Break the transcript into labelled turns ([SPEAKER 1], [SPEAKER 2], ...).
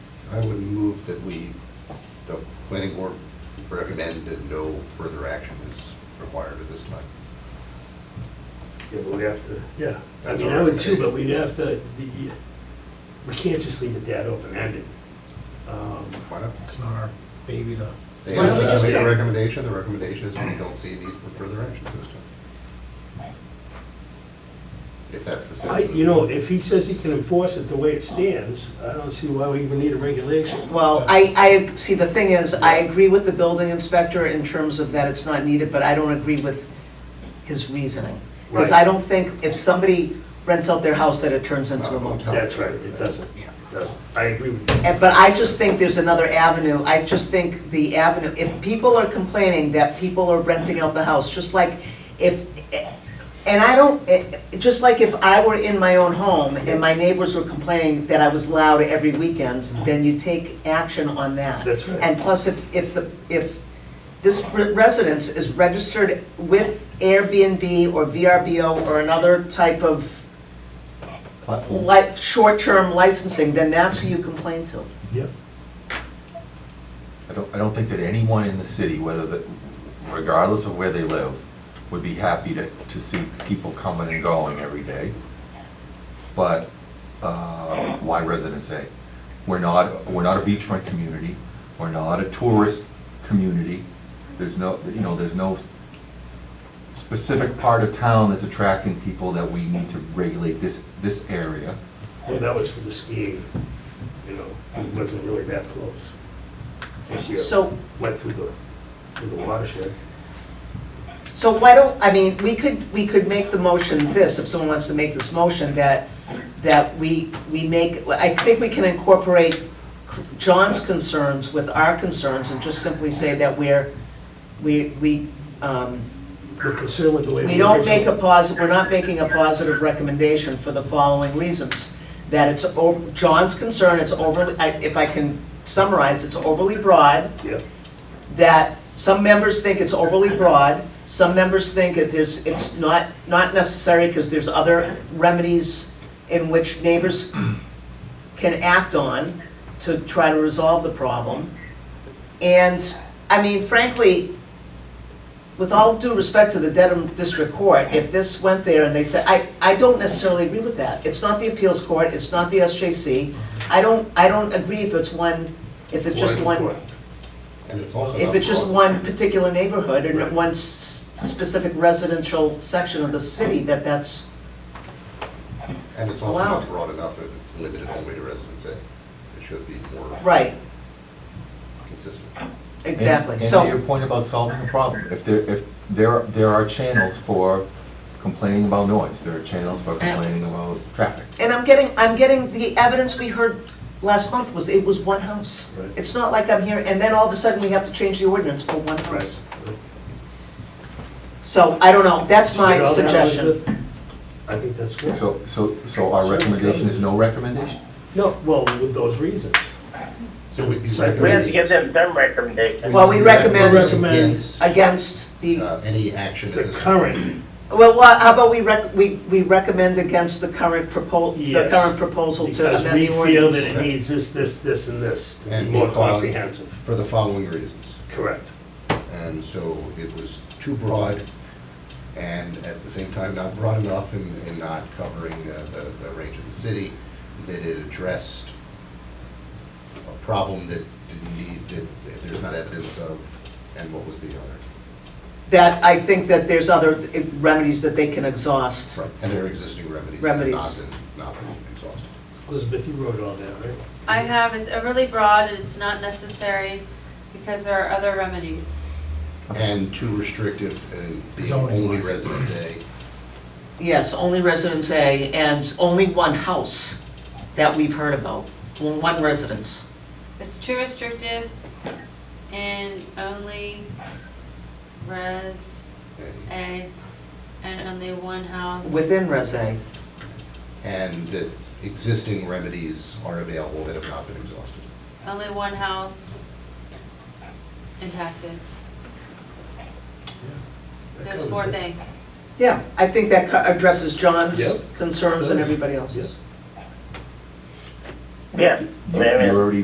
[SPEAKER 1] I would move that we, the planning board recommend that no further action is required at this time.
[SPEAKER 2] Yeah, but we have to,
[SPEAKER 3] Yeah, I
[SPEAKER 1] That's
[SPEAKER 3] mean,
[SPEAKER 1] all
[SPEAKER 3] I would
[SPEAKER 1] right.
[SPEAKER 3] too, but we'd have to, the- we can't just leave it that open-ended. Um,
[SPEAKER 1] Why not?
[SPEAKER 4] It's not our baby to,
[SPEAKER 1] They
[SPEAKER 3] Why don't we
[SPEAKER 1] asked
[SPEAKER 3] just
[SPEAKER 1] us to make a
[SPEAKER 3] take-
[SPEAKER 1] recommendation, the recommendation is we don't see a need for further action at this time. If that's the
[SPEAKER 3] I-
[SPEAKER 1] sense. of the
[SPEAKER 3] You know,
[SPEAKER 1] board.
[SPEAKER 3] if he says he can enforce it the way it stands, I don't see why we even need a regulation.
[SPEAKER 5] Well, I, I, see, the thing is, I agree with the building inspector in terms of that it's not needed, but I don't agree with his reasoning. Because
[SPEAKER 3] Right.
[SPEAKER 5] I don't think if somebody rents out their house that it turns into a motel.
[SPEAKER 3] That's right, it doesn't, it doesn't. I agree with you.
[SPEAKER 5] And- But I just think there's another avenue, I just think the avenue, if people are complaining that people are renting out the house, just like if, and I don't, eh, just like if I were in my own home and my neighbors were complaining that I was loud every weekend, then you take action on that.
[SPEAKER 3] That's right.
[SPEAKER 5] And plus, if, if, the if this re- residence is registered with Airbnb or VRBO or another type of
[SPEAKER 1] Platform.
[SPEAKER 5] like, short-term licensing, then that's who you complain to.
[SPEAKER 3] Yep.
[SPEAKER 6] I don't, I don't think that anyone in the city, whether the, regardless of where they live, would be happy to, to see people coming and going every day. But, uh, why residents A? We're not, we're not a beachfront community, we're not a tourist community. There's no, you know, there's no specific part of town that's attracting people that we need to regulate this, this area.
[SPEAKER 3] Well, that was for the skiing, you know, it wasn't really that close. This year,
[SPEAKER 5] So-
[SPEAKER 3] Went through the, through the watershed.
[SPEAKER 5] So why don't, I mean, we could, we could make the motion this, if someone wants to make this motion, that, that we, we make, I think we can incorporate John's concerns with our concerns and just simply say that we're, we, we, um,
[SPEAKER 3] We're concerned with the way.
[SPEAKER 5] we
[SPEAKER 3] the
[SPEAKER 5] don't
[SPEAKER 3] original-
[SPEAKER 5] make a posi, we're not making a positive recommendation for the following reasons. That it's, o- John's concern, it's overly, I- if I can summarize, it's overly broad
[SPEAKER 3] Yep.
[SPEAKER 5] that some members think it's overly broad, some members think that there's, it's not, not necessary because there's other remedies in which neighbors can act on to try to resolve the problem. And, I mean, frankly, with all due respect to the Dedham District Court, if this went there and they said, I, I don't necessarily agree with that. It's not the appeals court, it's not the SJC. I don't, I don't agree if it's one, if it's just one.
[SPEAKER 3] Waterfront.
[SPEAKER 1] And it's also.
[SPEAKER 5] If
[SPEAKER 1] not
[SPEAKER 5] it's just
[SPEAKER 1] broad.
[SPEAKER 5] one particular neighborhood and
[SPEAKER 3] Right.
[SPEAKER 5] one s- specific residential section of the city, that that's,
[SPEAKER 1] And it's also not
[SPEAKER 5] allowed.
[SPEAKER 1] broad enough if it's limited only to residents A. It should be more.
[SPEAKER 5] right,
[SPEAKER 1] Consistent.
[SPEAKER 5] exactly,
[SPEAKER 6] And- And to your
[SPEAKER 5] so,
[SPEAKER 6] point about solving a problem, if there, if there, there are channels for complaining about noise, there are channels for complaining about traffic.
[SPEAKER 5] and I'm getting, I'm getting, the evidence we heard last month was, it was one house.
[SPEAKER 3] Right.
[SPEAKER 5] It's not like I'm here, and then all of a sudden we have to change the ordinance for one
[SPEAKER 3] Right.
[SPEAKER 5] house. So, I don't know, that's
[SPEAKER 3] You
[SPEAKER 5] my
[SPEAKER 3] know, that was
[SPEAKER 5] suggestion.
[SPEAKER 3] the- I think that's good.
[SPEAKER 6] So, so, so our recommendation is no recommendation?
[SPEAKER 3] No, well, with those reasons.
[SPEAKER 1] So we'd be
[SPEAKER 3] So we have to
[SPEAKER 7] We have to give
[SPEAKER 1] recommending-
[SPEAKER 7] them some recommendation.
[SPEAKER 5] Well, we recommend-
[SPEAKER 1] Against,
[SPEAKER 5] Against the,
[SPEAKER 1] uh, any action. at
[SPEAKER 3] The
[SPEAKER 1] this time.
[SPEAKER 3] current,
[SPEAKER 5] well, wha- how about we rec, we, we recommend against the current propos, the
[SPEAKER 3] Yes.
[SPEAKER 5] current proposal to
[SPEAKER 3] because
[SPEAKER 5] amend
[SPEAKER 3] we
[SPEAKER 5] the ordinance?
[SPEAKER 3] feel that it needs this, this, this, and this to be
[SPEAKER 1] And
[SPEAKER 3] more
[SPEAKER 1] be followed.
[SPEAKER 3] comprehensive.
[SPEAKER 1] For the following reasons.
[SPEAKER 3] Correct.
[SPEAKER 1] And so it was too broad and at the same time not broad enough in, in not covering uh, the, the range of the city, that it addressed a problem that didn't need, that there's not evidence of, and what was the other?
[SPEAKER 5] that I think that there's other remedies that they can exhaust.
[SPEAKER 1] And there are existing remedies that have not
[SPEAKER 5] Remedies.
[SPEAKER 1] been, not been exhausted.
[SPEAKER 3] Elizabeth, you wrote all that, right?
[SPEAKER 8] I have, it's overly broad and it's not necessary because there are other remedies.
[SPEAKER 1] And too restrictive and being
[SPEAKER 4] Zoning
[SPEAKER 1] only
[SPEAKER 4] laws.
[SPEAKER 1] residence A.
[SPEAKER 5] Yes, only residence A and only one house that we've heard about, Well, one residence.
[SPEAKER 8] It's too restrictive and only res
[SPEAKER 1] and-
[SPEAKER 8] A and only one house.
[SPEAKER 5] Within res A,
[SPEAKER 1] And that existing remedies are available that have not been exhausted.
[SPEAKER 8] Only one house impacted.
[SPEAKER 3] That
[SPEAKER 8] Those four
[SPEAKER 3] covers it.
[SPEAKER 8] things.
[SPEAKER 5] yeah, I think that co- addresses John's
[SPEAKER 3] Yep.
[SPEAKER 5] concerns and everybody
[SPEAKER 3] Yep.
[SPEAKER 5] else's.
[SPEAKER 7] Yeah.
[SPEAKER 6] You you already